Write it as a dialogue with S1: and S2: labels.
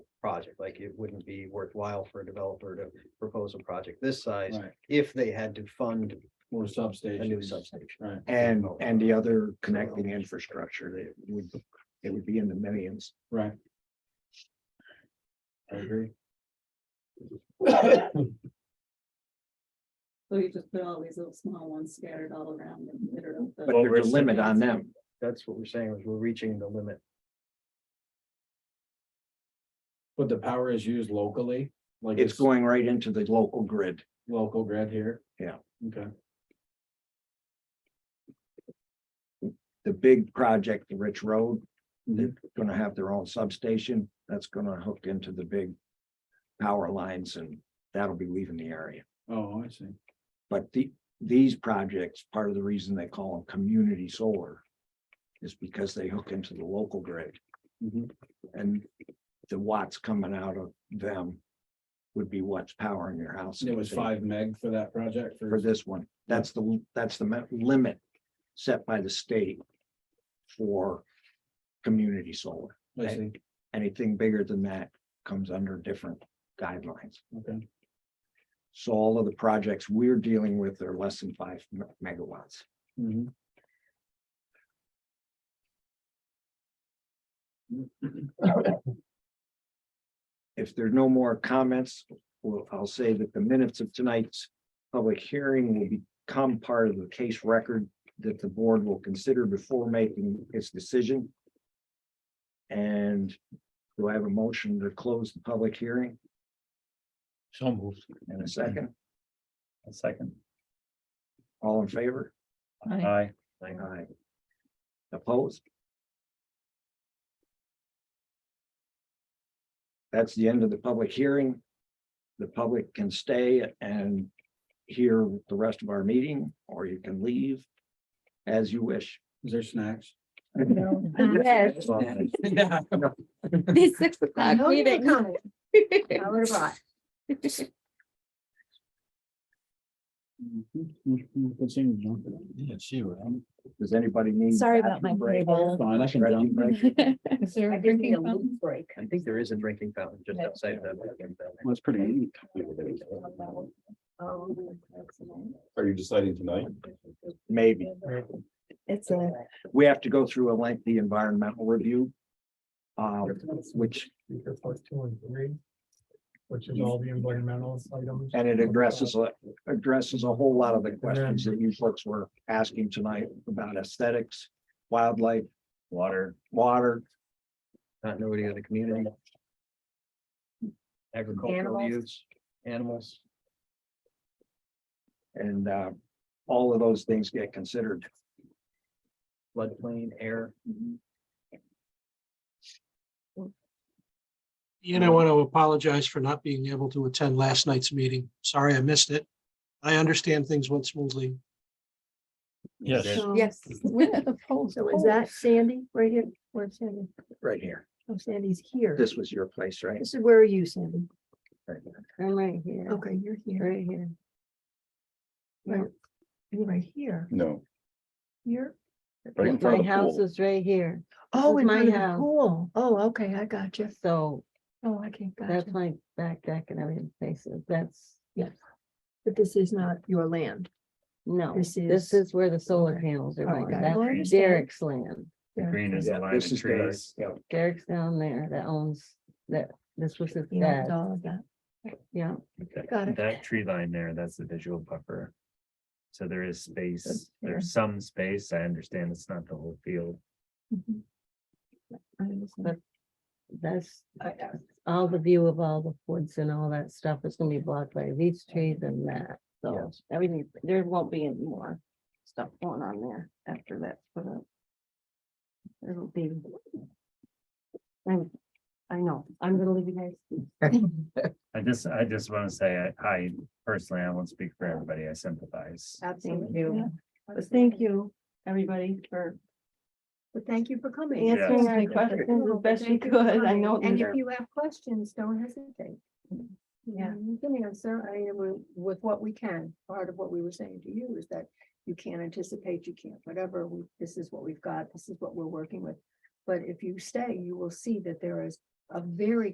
S1: project, like it wouldn't be worthwhile for a developer to propose a project this size
S2: Right,
S1: if they had to fund
S2: more
S1: a new
S2: substations,
S1: substation.
S2: right,
S3: And, and the other connecting infrastructure, it would, it would be in the millions.
S2: right. I agree.
S4: So you just put all these little small ones scattered all around and litter up the.
S3: But there's a limit on them.
S1: That's what we're saying, is we're reaching the limit.
S2: But the power is used locally, like
S3: It's going right into the local grid.
S2: Local grid here?
S3: Yeah.
S2: Okay,
S3: The big project, the Rich Road, they're
S2: Mhm.
S3: gonna have their own substation. That's gonna hook into the big power lines and that'll be leaving the area.
S2: oh, I see,
S3: But the, these projects, part of the reason they call them community solar is because they hook into the local grid.
S2: Mhm.
S3: And the watts coming out of them would be what's powering your house.
S2: And it was five meg for that project
S3: For
S2: for,
S3: this one, that's the, that's the ma- limit set by the state for community solar.
S2: I see,
S3: Anything bigger than that comes under different guidelines.
S2: okay,
S3: So all of the projects we're dealing with are less than five me- megawatts.
S2: mhm.
S3: If there's no more comments, well, I'll say that the minutes of tonight's public hearing will become part of the case record that the board will consider before making its decision. And do I have a motion to close the public hearing
S5: So moved.
S3: in a second?
S5: A second.
S3: All in favor?
S5: Aye.
S3: Aye. Opposed? That's the end of the public hearing. The public can stay and hear the rest of our meeting, or you can leave as you wish.
S2: is there snacks?
S6: Yes,
S2: Yeah.
S6: this six
S4: I
S6: o'clock
S4: know you
S6: meeting.
S4: would I would have bought.
S2: mm-hmm, Good seeing you. Yeah, see, right?
S3: Does anybody need?
S6: Sorry about my
S3: break?
S6: table.
S2: Fine, I can
S3: Restroom
S2: jump
S3: break?
S4: Is there
S6: a drinking fountain?
S4: break?
S1: I think there is a drinking fountain just
S6: Yeah.
S1: outside of that.
S2: That's pretty neat.
S7: Are you deciding tonight?
S3: Maybe.
S6: It's a,
S3: We have to go through a lengthy environmental review. uh, which,
S8: two and three, which is all the environmental items.
S3: and it addresses, a- addresses a whole lot of the questions that you folks were asking tonight about aesthetics, wildlife,
S5: Water.
S3: water,
S1: Continuity of the community. Agricultural
S6: Animals.
S1: use, animals.
S3: and uh, all of those things get considered.
S1: floodplain, air.
S9: Ian, I want to apologize for not being able to attend last night's meeting. Sorry I missed it. I understand things went smoothly.
S5: Yes.
S6: yes.
S10: So
S6: Oh,
S10: is that Sandy right here? Where's Sandy?
S3: Right here.
S10: Oh, Sandy's here.
S3: This was your place, right?
S10: This is, where are you, Sandy?
S6: I'm right here.
S10: Okay, you're here.
S6: Right here.
S10: Right. You're right here.
S7: No.
S10: You're,
S7: Right in front
S6: My
S7: of the
S6: house
S7: pool.
S6: is right here,
S10: oh,
S6: is
S10: in
S6: my
S10: front of the
S6: house.
S10: pool. Oh, okay, I got you.
S6: so
S10: Oh, I can't, got
S6: that's
S10: you.
S6: my back deck and everything faces, that's,
S10: But this is not your land.
S6: no.
S10: This
S6: This
S10: is-
S6: is where the solar
S10: Okay.
S6: panels are
S10: All right,
S6: going,
S10: got it. No, I
S6: that's
S10: understand.
S6: Derek's land,
S10: Yeah.
S5: Green is
S3: Yeah,
S5: a line
S3: this
S5: of
S3: is there,
S5: trees.
S3: yeah.
S6: Derek's down there that owns, that, this was his
S10: You owned
S6: dad,
S10: all of that.
S6: yeah.
S5: That-
S10: Got it.
S5: That tree line there, that's the visual buffer. So there is space,
S10: yeah.
S5: there's some space. I understand it's not the whole field.
S10: Mhm. I understand.
S6: But- That's all the view of all the woods and all that stuff is gonna be blocked by these trees and that, so
S3: Yes.
S6: everything, there won't be any more stuff going on there after that's put up. It'll be. I'm, I know, I'm gonna leave you guys.
S5: I just, I just want to say, I- I personally, I won't speak for everybody. I sympathize.
S6: Thank
S10: Yeah.
S6: you. But thank you, everybody, for
S10: But thank you for coming.
S6: answering our
S10: Thank you.
S6: questions as best you
S10: Thank you for
S6: could. I
S10: coming.
S6: know.
S10: And
S6: these
S10: if
S6: are-
S10: you have questions, don't hesitate.
S6: Yeah.
S10: You can answer, I mean, with- with what we can. Part of what we were saying to you is that you can't anticipate, you can't, whatever, we, this is what we've got, this is what we're working with. But if you stay, you will see that there is a very